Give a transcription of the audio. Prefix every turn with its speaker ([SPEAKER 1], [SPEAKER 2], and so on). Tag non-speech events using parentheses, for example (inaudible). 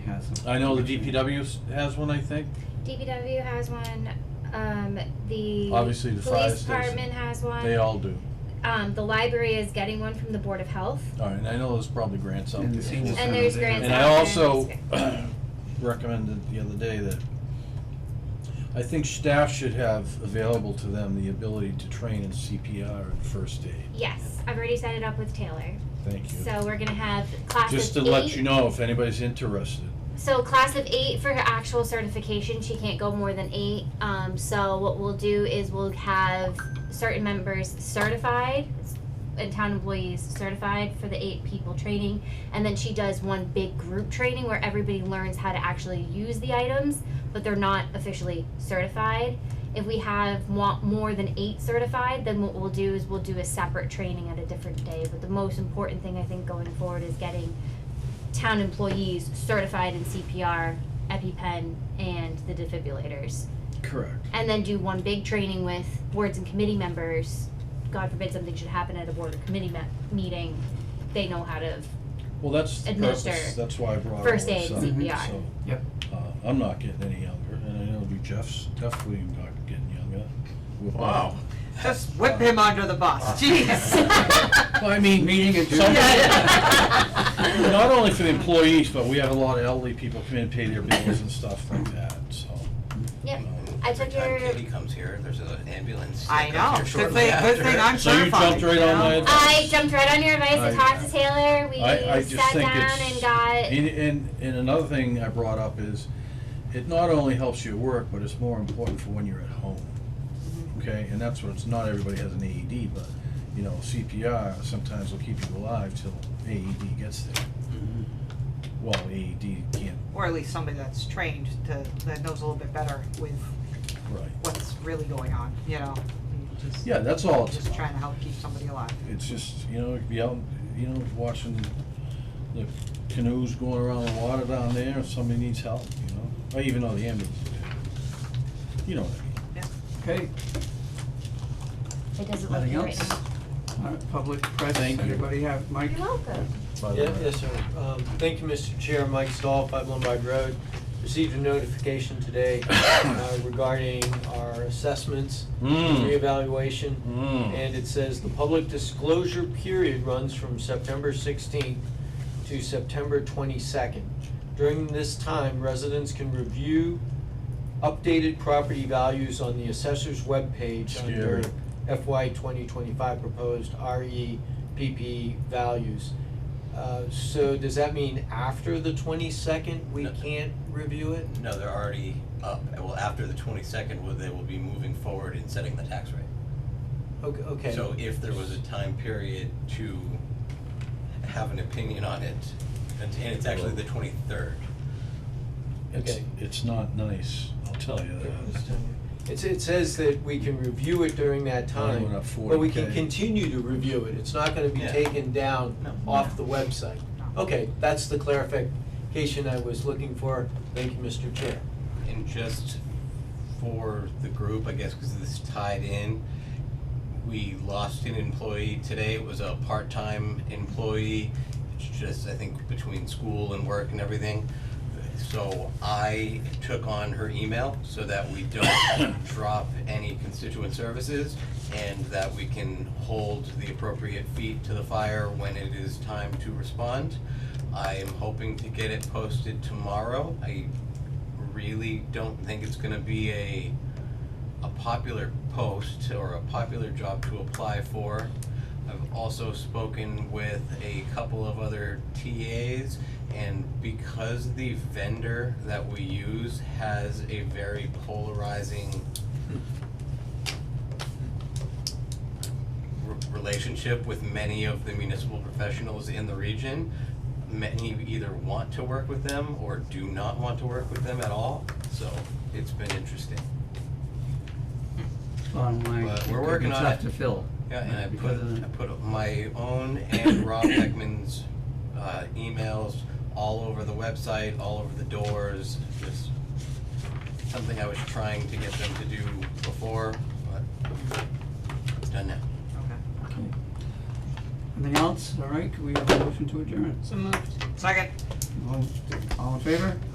[SPEAKER 1] has them.
[SPEAKER 2] I know the DPW s- has one, I think.
[SPEAKER 3] DPW has one, um, the.
[SPEAKER 2] Obviously, the fire
[SPEAKER 3] Police
[SPEAKER 2] station.
[SPEAKER 3] department has one.
[SPEAKER 2] They all do.
[SPEAKER 3] Um, the library is getting one from the Board of Health.
[SPEAKER 2] All right, and I know there's probably grants out
[SPEAKER 1] And the
[SPEAKER 2] there.
[SPEAKER 1] senior
[SPEAKER 3] And there's grants
[SPEAKER 2] And I
[SPEAKER 3] out
[SPEAKER 2] also (clears throat)
[SPEAKER 3] there.
[SPEAKER 2] recommended the other day that I think staff should have available to them the ability to train in CPR and first aid.
[SPEAKER 3] Yes, I've already set it up with Taylor.
[SPEAKER 2] Thank you.
[SPEAKER 3] So we're gonna have class of eight.
[SPEAKER 2] Just to let you know if anybody's interested.
[SPEAKER 3] So class of eight for her actual certification, she can't go more than eight. Um, so what we'll do is we'll have certain members certified and town employees certified for the eight people training. And then she does one big group training where everybody learns how to actually use the items, but they're not officially certified. If we have want more than eight certified, then what we'll do is we'll do a separate training at a different day. But the most important thing I think going forward is getting town employees certified in CPR, EpiPen, and the defibrillators.
[SPEAKER 2] Correct.
[SPEAKER 3] And then do one big training with boards and committee members. God forbid something should happen at a board or committee me- meeting. They know
[SPEAKER 2] (laughs)
[SPEAKER 3] how to.
[SPEAKER 2] Well, that's the purpose,
[SPEAKER 3] Administer
[SPEAKER 2] that's why I brought all
[SPEAKER 3] first
[SPEAKER 2] this up.
[SPEAKER 3] aid, CPR.
[SPEAKER 2] So,
[SPEAKER 1] Yep.
[SPEAKER 2] uh, I'm not getting any younger, and I know you, Jeff's definitely not getting younger. We're both-
[SPEAKER 4] Wow.
[SPEAKER 5] Just whip him under the bus, jeez.
[SPEAKER 2] Well, I mean,
[SPEAKER 4] Meeting adjourned.
[SPEAKER 2] some-
[SPEAKER 5] Yeah.
[SPEAKER 2] (laughs) not only for the employees, but we have a lot of elderly people come in, pay their bills and stuff like that, so.
[SPEAKER 3] Yep.
[SPEAKER 2] um,
[SPEAKER 3] I
[SPEAKER 6] Every
[SPEAKER 3] took
[SPEAKER 6] time
[SPEAKER 3] your.
[SPEAKER 6] Katie comes here, there's an ambulance. that
[SPEAKER 5] I
[SPEAKER 6] comes
[SPEAKER 5] know.
[SPEAKER 6] here
[SPEAKER 5] Good
[SPEAKER 6] shortly
[SPEAKER 5] thing, good
[SPEAKER 6] after.
[SPEAKER 5] thing I'm
[SPEAKER 2] So you
[SPEAKER 5] certified,
[SPEAKER 2] jumped right on my
[SPEAKER 5] you know?
[SPEAKER 2] advice.
[SPEAKER 3] I jumped right on your advice. I,
[SPEAKER 2] I-
[SPEAKER 3] talked to Taylor. We
[SPEAKER 2] I, I just
[SPEAKER 3] sat
[SPEAKER 2] think
[SPEAKER 3] down
[SPEAKER 2] it's.
[SPEAKER 3] and got.
[SPEAKER 2] And, and, and another thing I brought up is, it not only helps you at work, but it's more important for when you're at home. Okay, and that's what, it's not everybody has an AED, but, you know, CPR sometimes will keep you alive till AED gets there. Well, AED can't,
[SPEAKER 5] Or at least somebody that's trained to, that knows a little bit better with
[SPEAKER 2] right,
[SPEAKER 5] what's really going on, you know? You just-
[SPEAKER 2] yeah, that's all it's
[SPEAKER 5] Just
[SPEAKER 2] about.
[SPEAKER 5] trying to help keep somebody alive.
[SPEAKER 2] It's just, you know, be out, you know, watching the canoes going around the water down there, if somebody needs help, you know, or even though the ambulance is there. You know what I mean?
[SPEAKER 1] Okay,
[SPEAKER 3] It doesn't look
[SPEAKER 1] nothing
[SPEAKER 3] good right
[SPEAKER 1] else?
[SPEAKER 3] now.
[SPEAKER 1] All right, Public press,
[SPEAKER 2] Thank you.
[SPEAKER 1] anybody have, Mike?
[SPEAKER 3] You're welcome.
[SPEAKER 2] By the
[SPEAKER 7] Yeah,
[SPEAKER 2] way.
[SPEAKER 7] yes, sir. Um, Thank you, Mr. Chair. Mike Stahl, Five Lombard Road. Received a notification today uh, regarding our assessments, Hmm.
[SPEAKER 2] Mm.
[SPEAKER 7] reevaluation.
[SPEAKER 2] Mm.
[SPEAKER 7] And it says the public disclosure period runs from September 16th to September 22nd. During this time, residents can review updated property values on the assessor's webpage
[SPEAKER 2] Scary.
[SPEAKER 7] under FY 2025 proposed REPP values. Uh, So does that mean after the 22nd, we
[SPEAKER 6] No.
[SPEAKER 7] can't review it?
[SPEAKER 6] No, they're already up. Well, after the twenty-second, well, they will be moving forward in setting the tax rate.
[SPEAKER 7] Okay, okay.
[SPEAKER 6] So if there was a time period to have an opinion on it, and and it's actually the twenty-third.
[SPEAKER 2] It's,
[SPEAKER 7] Okay.
[SPEAKER 2] it's not nice, I'll tell you that.
[SPEAKER 7] It's, it says that we can review it during that
[SPEAKER 2] Only went
[SPEAKER 7] time,
[SPEAKER 2] up
[SPEAKER 7] but we can
[SPEAKER 2] 40K.
[SPEAKER 7] continue to review it, it's not gonna be
[SPEAKER 6] Yeah.
[SPEAKER 7] taken down
[SPEAKER 5] No.
[SPEAKER 7] off the website.
[SPEAKER 2] Oh.
[SPEAKER 5] No.
[SPEAKER 7] Okay, that's the clarification I was looking for, thank you, Mr. Chair.
[SPEAKER 6] And just for the group, I guess, because this tied in, we lost an employee today. It was a part-time employee. It's just, I think, between school and work and everything. So I took on her email so that we don't (coughs) drop any constituent services and that we can hold the appropriate feet to the fire when it is time to respond. I am hoping to get it posted tomorrow. I really don't think it's gonna be a, a popular post or a popular job to apply for. I've also spoken with a couple of other TAs, and because the vendor that we use has a very polarizing re- relationship with many of the municipal professionals in the region, many either want to work with them or do not want to work with them at all, so it's been interesting.
[SPEAKER 4] Bottom line,
[SPEAKER 6] But
[SPEAKER 4] it
[SPEAKER 6] we're
[SPEAKER 4] could be
[SPEAKER 6] working on
[SPEAKER 4] tough
[SPEAKER 6] it.
[SPEAKER 4] to fill.
[SPEAKER 6] Yeah,
[SPEAKER 4] uh,
[SPEAKER 6] and I
[SPEAKER 4] because
[SPEAKER 6] put,
[SPEAKER 4] of the-
[SPEAKER 6] I put my own
[SPEAKER 4] (coughs)
[SPEAKER 6] and Rob Beckman's, uh, emails all over the website, all over the doors, just something I was trying to get them to do before, but it's done now.
[SPEAKER 5] Okay.
[SPEAKER 1] Okay. Anything else? All right, can we have a motion to adjourn?
[SPEAKER 5] Second.
[SPEAKER 1] All- All in favor?